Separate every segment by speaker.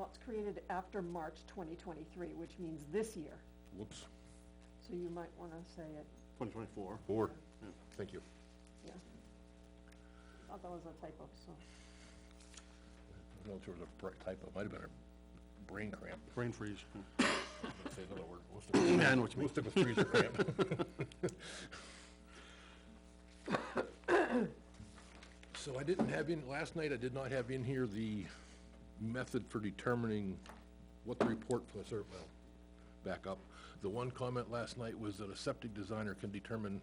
Speaker 1: jobs created after March twenty twenty-three, which means this year,
Speaker 2: Whoops,
Speaker 1: so you might wanna say it,
Speaker 3: Twenty twenty-four.
Speaker 2: four, thank you.
Speaker 1: yeah. Oh, That was a typo, so,
Speaker 2: I don't know if there was a br- typo, might have been a brain cramp,
Speaker 3: Brain freeze. Hmm.
Speaker 2: Let's say another word. We'll stick with-
Speaker 3: Yeah, I know what you
Speaker 2: We'll stick with freezer cramp. So I didn't have in, last night I did not have in here the method for determining what the report for the cert, well, back up. The one comment last night was that a septic designer can determine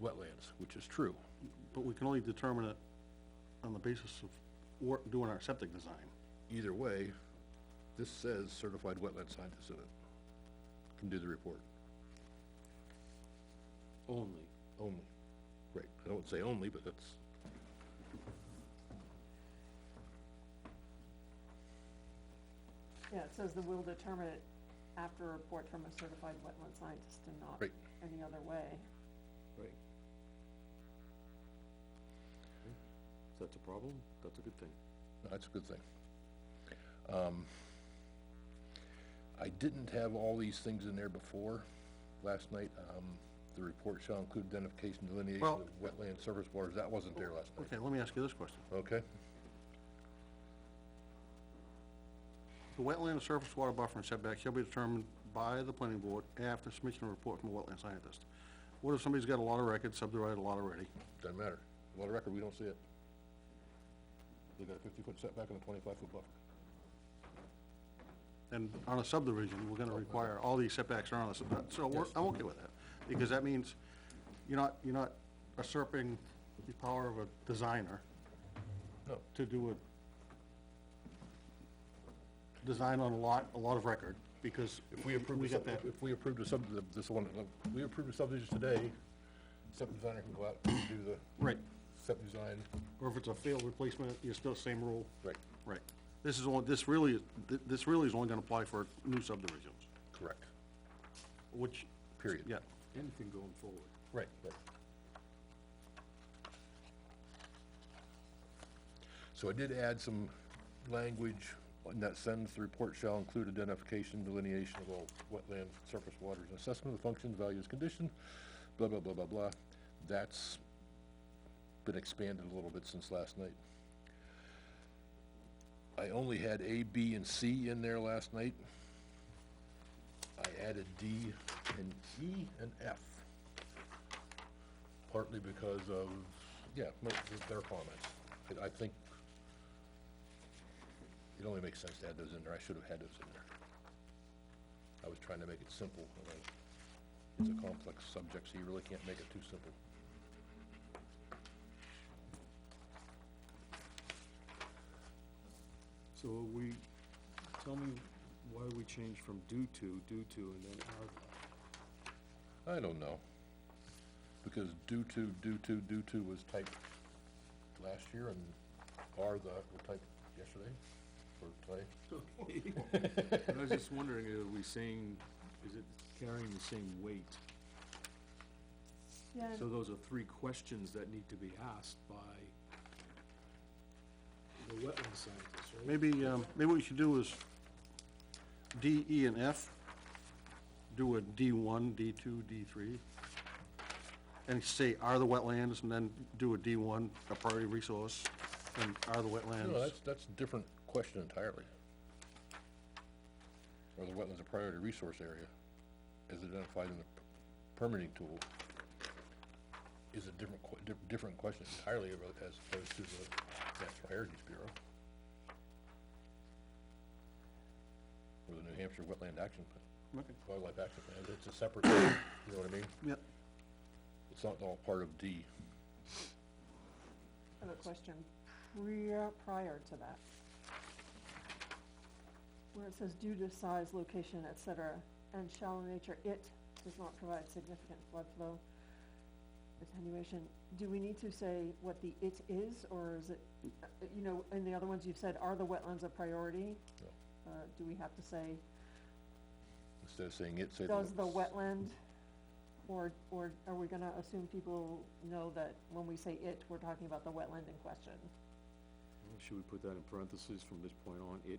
Speaker 2: wetlands, which is true.
Speaker 3: But we can only determine it on the basis of wor- doing our septic design.
Speaker 2: Either way, this says certified wetland scientist in it, can do the report.
Speaker 3: Only.
Speaker 2: Only. Right, I don't say only, but that's,
Speaker 1: yeah, it says that we'll determine it after a report from a certified wetland scientist and not
Speaker 2: Right.
Speaker 1: any other way.
Speaker 4: Right. If that's a problem, that's a good thing.
Speaker 2: no, that's a good thing. Um, I didn't have all these things in there before, last night, um, the report shall include identification, delineation
Speaker 3: Well-
Speaker 2: of wetland surface waters, that wasn't there last night,
Speaker 3: Okay, let me ask you this question.
Speaker 2: okay?
Speaker 3: The wetland and surface water buffer and setback shall be determined by the planning board after submission of report from a wetland scientist. What if somebody's got a lot of records, subdivided a lot already?
Speaker 2: Doesn't matter, well, the record, we don't see it. They got a fifty-foot setback and a twenty-five-foot buffer.
Speaker 3: And on a subdivision, we're gonna require, all these setbacks are on us, so we're, I'm okay with that. Because that means you're not, you're not usurping the power of a designer
Speaker 2: No.
Speaker 3: to do a design on a lot, a lot of record, because
Speaker 2: If we approve,
Speaker 3: we
Speaker 2: the
Speaker 3: got
Speaker 2: sub-
Speaker 3: that.
Speaker 2: if we approve the sub, the- this one, uh, we approve the subdivision today, septic designer can go out and do the.
Speaker 3: Right.
Speaker 2: Septic design,
Speaker 3: Or if it's a failed replacement, you're still same rule.
Speaker 2: right,
Speaker 3: Right. This is only, this really, th- this really is only gonna apply for new subdivisions,
Speaker 2: correct,
Speaker 3: which,
Speaker 2: period.
Speaker 3: yeah.
Speaker 4: Anything going forward.
Speaker 2: Right, right. So I did add some language in that sentence, the report shall include identification, delineation of all wetland, surface waters, and assessment of the functions, values, condition, blah, blah, blah, blah, blah. That's been expanded a little bit since last night. I only had A, B, and C in there last night. I added D and E and F partly because of, yeah, mo- th- their comments. And I think it only makes sense to add those in there, I should have had those in there. I was trying to make it simple, and I- it's a complex subject, so you really can't make it too simple.
Speaker 4: So are we, tell me why we changed from due to, due to, and then are.
Speaker 2: I don't know, because due to, due to, due to was typed last year, and are the, were typed yesterday, or today.
Speaker 4: And I was just wondering, are we saying, is it carrying the same weight?
Speaker 1: Yeah,
Speaker 4: So those are three questions that need to be asked by the wetland scientists, right?
Speaker 3: Maybe, um, maybe what we should do is D, E, and F, do a D one, D two, D three, and say are the wetlands, and then do a D one, a priority resource, and are the
Speaker 2: No,
Speaker 3: wetlands.
Speaker 2: that's, that's a different question entirely. Are the wetlands a priority resource area as identified in the p- permitting tool? Is a different, que- di- different question entirely about- as opposed to the National Heritage Bureau. Or the New Hampshire Wetland Action Plan,
Speaker 3: Okay.
Speaker 2: Wildlife Action Plan, it's a separate, you know what I mean?
Speaker 3: Yep,
Speaker 2: It's not all part of D.
Speaker 1: I have a question prior, prior to that. Where it says due to size, location, et cetera, and shallow nature, it does not provide significant flood flow attenuation. Do we need to say what the it is, or is it, uh, you know, in the other ones you've said, are the wetlands a priority?
Speaker 2: No.
Speaker 1: Uh, do we have to say,
Speaker 2: Instead of saying it, say the.
Speaker 1: does the wetland, or, or are we gonna assume people know that when we say it, we're talking about the wetland in question?
Speaker 4: Should we put that in parentheses from this point on, it